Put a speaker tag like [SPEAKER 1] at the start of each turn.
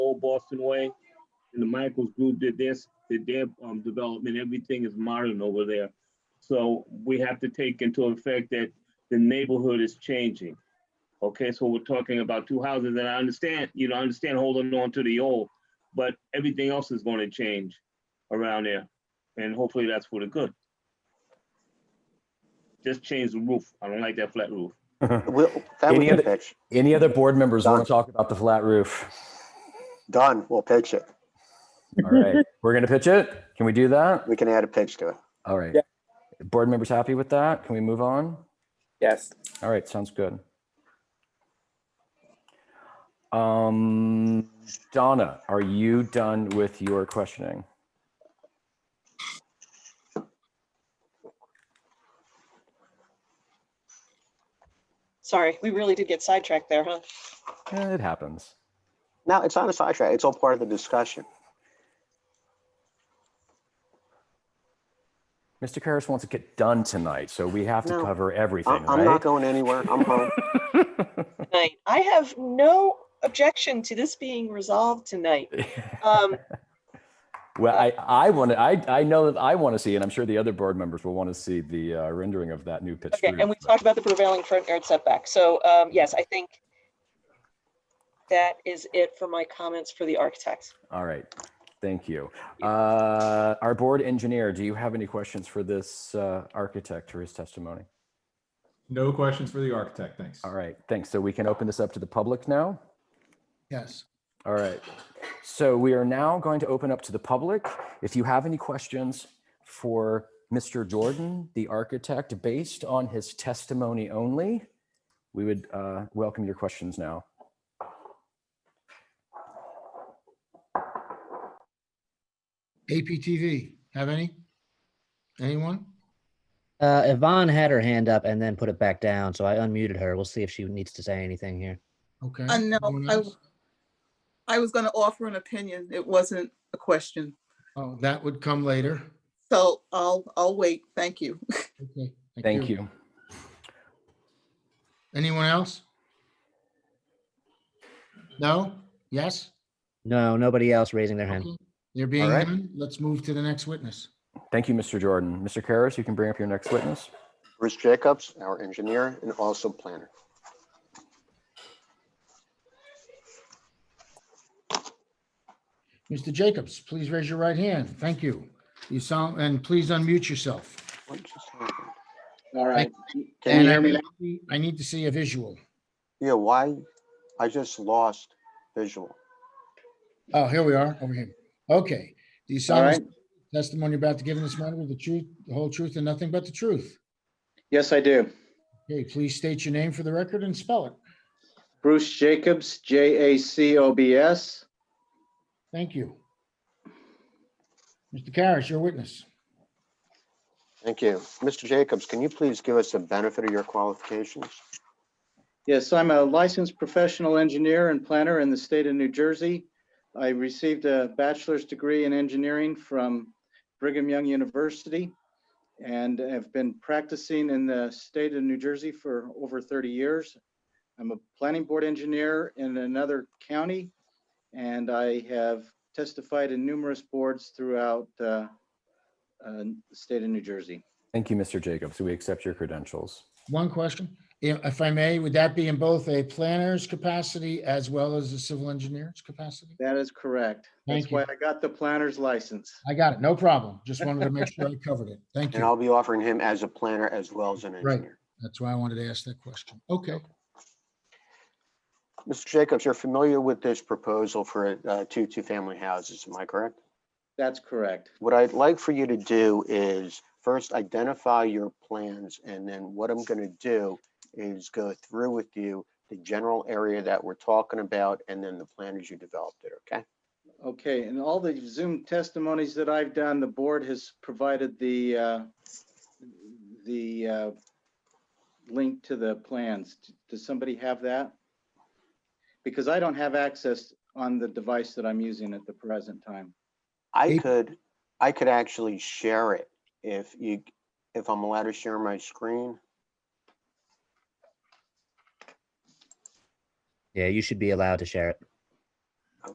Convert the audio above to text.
[SPEAKER 1] old Boston way. And the Michaels group did this, did their um, development. Everything is modern over there. So we have to take into effect that the neighborhood is changing. Okay, so we're talking about two houses, and I understand, you know, I understand holding on to the old, but everything else is going to change around there, and hopefully that's for the good. Just change the roof. I don't like that flat roof.
[SPEAKER 2] We'll, that we
[SPEAKER 3] Any
[SPEAKER 2] can
[SPEAKER 3] other-
[SPEAKER 2] pitch.
[SPEAKER 3] Any other board members want to talk about the flat roof?
[SPEAKER 2] Done. We'll pitch it.
[SPEAKER 3] All right, we're gonna pitch it. Can we do that?
[SPEAKER 2] We can add a pitch to it.
[SPEAKER 3] All right.
[SPEAKER 4] Yeah.
[SPEAKER 3] Board members happy with that? Can we move on?
[SPEAKER 4] Yes.
[SPEAKER 3] All right, sounds good. Um, Donna, are you done with your questioning?
[SPEAKER 5] Sorry, we really did get sidetracked there, huh?
[SPEAKER 3] Eh, It happens.
[SPEAKER 2] No, it's not a sidetrack. It's all part of the discussion.
[SPEAKER 3] Mr. Karas wants to get done tonight, so we have to
[SPEAKER 2] No.
[SPEAKER 3] cover
[SPEAKER 2] I-
[SPEAKER 3] everything,
[SPEAKER 2] I'm not
[SPEAKER 3] right?
[SPEAKER 2] going anywhere. I'm home.
[SPEAKER 5] Tonight, I have no objection to this being resolved tonight. Um,
[SPEAKER 3] Well, I, I want to, I, I know that I want to see, and I'm sure the other board members will want to see the uh, rendering of that new pitch.
[SPEAKER 5] okay, and we
[SPEAKER 3] roof.
[SPEAKER 5] talked about the prevailing front yard setback. So, um, yes, I think that is it for my comments for the architect.
[SPEAKER 3] All right, thank you. Uh, Our board engineer, do you have any questions for this uh, architect or his testimony?
[SPEAKER 6] No questions for the architect, thanks.
[SPEAKER 3] All right, thanks. So we can open this up to the public now?
[SPEAKER 7] Yes.
[SPEAKER 3] All right. So we are now going to open up to the public. If you have any questions for Mr. Jordan, the architect, based on his testimony only, we would uh, welcome your questions now.
[SPEAKER 7] APTV, have any? Anyone?
[SPEAKER 8] Uh, Yvonne had her hand up and then put it back down, so I unmuted her. We'll see if she needs to say anything here.
[SPEAKER 7] Okay.
[SPEAKER 9] Uh, no,
[SPEAKER 7] one
[SPEAKER 9] I-
[SPEAKER 7] else?
[SPEAKER 9] I was going to offer an opinion. It wasn't a question.
[SPEAKER 7] Oh, that would come later.
[SPEAKER 9] So I'll, I'll wait. Thank you.
[SPEAKER 7] Okay.
[SPEAKER 3] Thank you.
[SPEAKER 7] Anyone else? No? Yes?
[SPEAKER 8] No, nobody else raising their hand.
[SPEAKER 7] Okay. There being
[SPEAKER 3] right.
[SPEAKER 7] none, let's move to the next witness.
[SPEAKER 3] Thank you, Mr. Jordan. Mr. Karas, you can bring up your next witness.
[SPEAKER 2] Bruce Jacobs, our engineer and also planner.
[SPEAKER 7] Mr. Jacobs, please raise your right hand. Thank you. You sound, and please unmute yourself.
[SPEAKER 2] What just happened?
[SPEAKER 10] All right.
[SPEAKER 2] Can
[SPEAKER 7] And
[SPEAKER 2] you
[SPEAKER 7] I
[SPEAKER 2] hear me?
[SPEAKER 7] need
[SPEAKER 2] now?
[SPEAKER 7] to see- I need to see a visual.
[SPEAKER 2] Yeah, why? I just lost visual.
[SPEAKER 7] Oh, here we are, over here. Okay. Do you
[SPEAKER 10] All
[SPEAKER 7] sound
[SPEAKER 10] right.
[SPEAKER 7] the testimony about to give in this matter with the truth, the whole truth and nothing but the truth?
[SPEAKER 10] Yes, I do.
[SPEAKER 7] Okay, please state your name for the record and spell it.
[SPEAKER 10] Bruce Jacobs, J A C O B S.
[SPEAKER 7] Thank you. Mr. Karas, your witness.
[SPEAKER 2] Thank you. Mr. Jacobs, can you please give us the benefit of your qualifications?
[SPEAKER 10] Yes, I'm a licensed professional engineer and planner in the state of New Jersey. I received a bachelor's degree in engineering from Brigham Young University and have been practicing in the state of New Jersey for over 30 years. I'm a planning board engineer in another county and I have testified in numerous boards throughout uh, uh, the state of New Jersey.
[SPEAKER 3] Thank you, Mr. Jacobs. We accept your credentials.
[SPEAKER 7] One question, i- if I may, would that be in both a planner's capacity as well as a civil engineer's capacity?
[SPEAKER 10] That is correct.
[SPEAKER 7] Thank
[SPEAKER 10] That's why
[SPEAKER 7] you.
[SPEAKER 10] I got the planner's license.
[SPEAKER 7] I got it, no problem. Just wanted to make sure I covered it. Thank
[SPEAKER 2] And
[SPEAKER 7] you.
[SPEAKER 2] I'll be offering him as a planner as well as an
[SPEAKER 7] Right.
[SPEAKER 2] engineer.
[SPEAKER 7] That's why I wanted to ask that question. Okay,
[SPEAKER 2] Mr. Jacobs, you're familiar with this proposal for uh, two two-family houses, am I correct?
[SPEAKER 10] That's correct.
[SPEAKER 2] What I'd like for you to do is first identify your plans and then what I'm going to do is go through with you the general area that we're talking about and then the plan as you developed it, okay?
[SPEAKER 10] Okay, and all the Zoom testimonies that I've done, the board has provided the, uh, the uh, link to the plans. Does somebody have that? Because I don't have access on the device that I'm using at the present time.
[SPEAKER 2] I
[SPEAKER 7] Eight-
[SPEAKER 2] could, I could actually share it if you, if I'm allowed to share my screen.
[SPEAKER 8] Yeah, you should be allowed to share it.